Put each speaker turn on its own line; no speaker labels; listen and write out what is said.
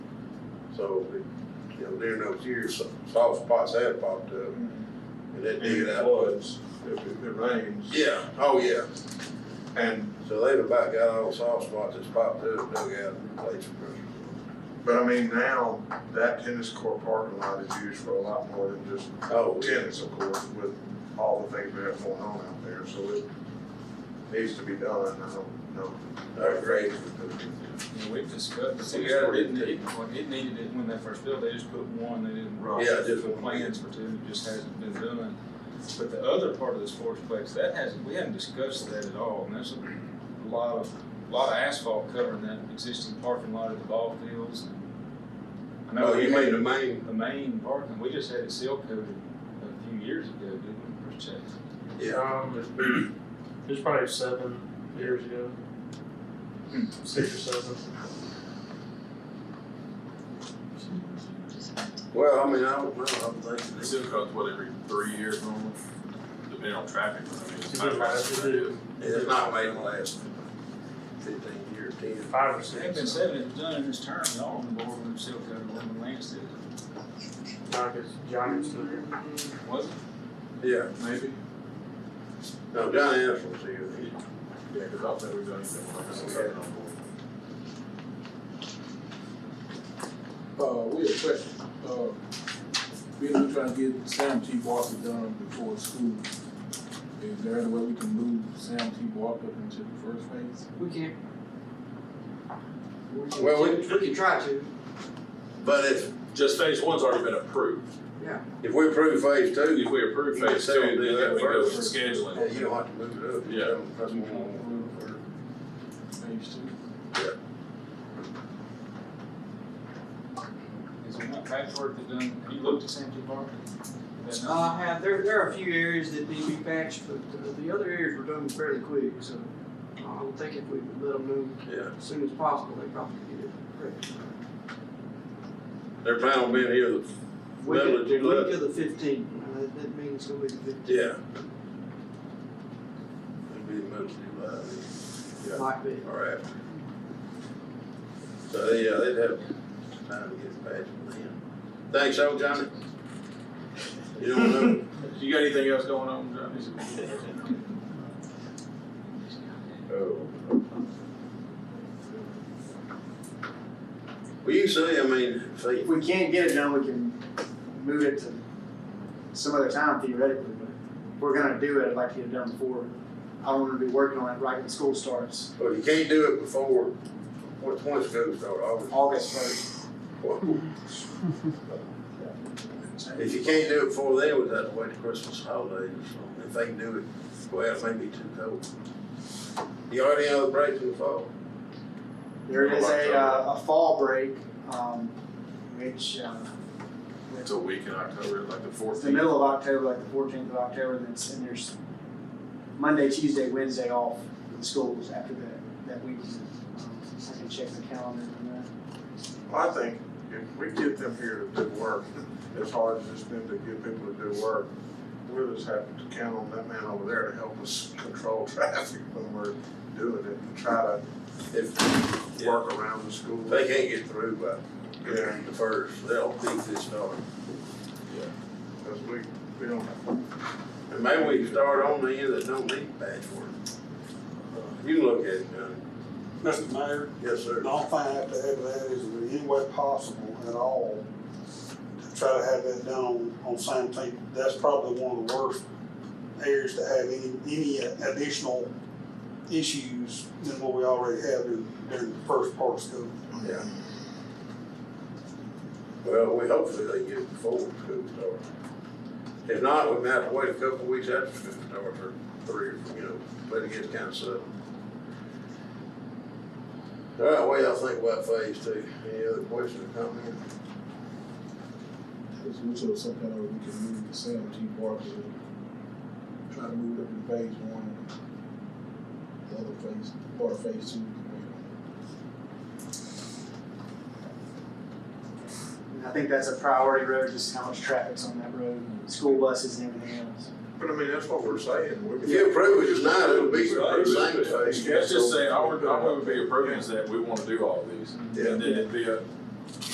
So, you know, during those years, some soft spots have popped up. And that
If
did
it
out.
floods, if it it rains.
Yeah, oh, yeah.
And,
So they've about got all the soft spots that's popped up, dug out and replaced them.
but I mean, now that tennis court parking lot is used for a lot more than just
Oh, yeah.
tennis, of course, with all the things we have going on out there, so it needs to be done, I don't know.
Our grades.
You know, we've discussed, but
We
see,
gotta
it didn't,
do-
it, when it needed it when they first built, they just put one, they didn't.
Right.
Yeah, just
put
one.
Plans for two, it just hasn't been done. But the other part of this fourplex, that hasn't, we haven't discussed that at all, and there's a lot of, lot of asphalt covering that existing parking lot at the ball fields. I know
Oh,
we
you
had
mean the main?
The main parking, we just had it seal coated a few years ago, didn't we, Chase?
Yeah.
Um, it was probably seven years ago.
Hmm.
Six or seven.
Well, I mean, I don't know, I'm thinking.
They still cost what every three years normally, depending on traffic. but I mean, it's
It
not-
did last, it did
It's not made the last fifteen years, ten.
five or
It had been
six.
said it was done in this term, y'all on the board when it was seal coated, when Lance did it,
Now, because Johnny's still here.
was it?
Yeah,
Maybe,
no, John Anderson's here. He-
yeah, cause I'll say we've done something like this.
Okay.
Uh, we have a question, uh, we're just trying to get Sam T. Walker done before school. Is there any way we can move Sam T. Walker into the first phase?
We can't. We can,
Well, we-
we can try to.
But if,
Just phase one's already been approved.
if we approve phase two,
If we approve
You can
phase
say we'll
two,
do
then
that
we go with
first.
scheduling.
yeah, you don't have to move it up.
Yeah.
That's more.
Phase two?
Is there not patchwork that done, have you looked at Santee Park? That not-
Uh, have, there, there are a few areas that need to be patched, but uh, the other areas were done fairly quick, so I don't think if we let them know
Yeah,
as soon as possible, they probably could get it correct.
they're planning on being here the
Week
middle of
of, week
July.
of the fifteenth, that, that means it's gonna be the fifteenth.
Yeah. It'll be the middle of July, yeah.
Might be.
or after. So, yeah, they'd have time to get it patched then. Thanks, old Johnny. You don't know.
You got anything else going on, Johnny?
Oh.
Well, you say, I mean, say,
If we can't get it done, we can move it to some other time theoretically, but if we're gonna do it, I'd like to get it done before. I don't wanna be working on it right when school starts,
well, you can't do it before, once, once school start, August.
August first.
If you can't do it before then, we'd have to wait till Christmas holidays, if they can do it, well, it may be too cold. You already have the break in the fall?
There is a, uh, a fall break, um, which, uh,
It's a week in October, like the
it's
fourth.
the middle of October, like the fourteenth of October, and it's, and there's Monday, Tuesday, Wednesday off for the schools after that, that week. Um, I can check the calendar on that.
Well, I think if we get them here to do work, as hard as it's been to get people to do work, we'll just have to count on that man over there to help us control traffic when we're doing it and try
If
to work around the school.
they can't get through by
Yeah,
the first, they'll keep this started.
because we, we don't.
And maybe we can start on the end that don't need patchwork. You can look at it, Johnny.
Mr. Mayor,
Yes, sir.
my find to have that is in any way possible at all, to try to have that done on seventeenth. That's probably one of the worst areas to have any, any additional issues than what we already have in, during the first part of school.
Yeah. Well, we hopefully they get it before school starts. If not, we may have to wait a couple of weeks after school starts or three, you know, but it gets kind of settled. All right, what y'all think about phase two? Any other questions or comments?
Is which of some kind of, we can move Sam T. Walker, try to move it up in phase one. The other phase, part of phase two, we can wait on.
And I think that's a priority road, just how much traffic's on that road, school buses and everything else.
But I mean, that's what we're saying. We-
If you approve it tonight, it'll be the same phase.
Let's just say, I would, I would be approving is that we wanna do all these, and then it'd be a,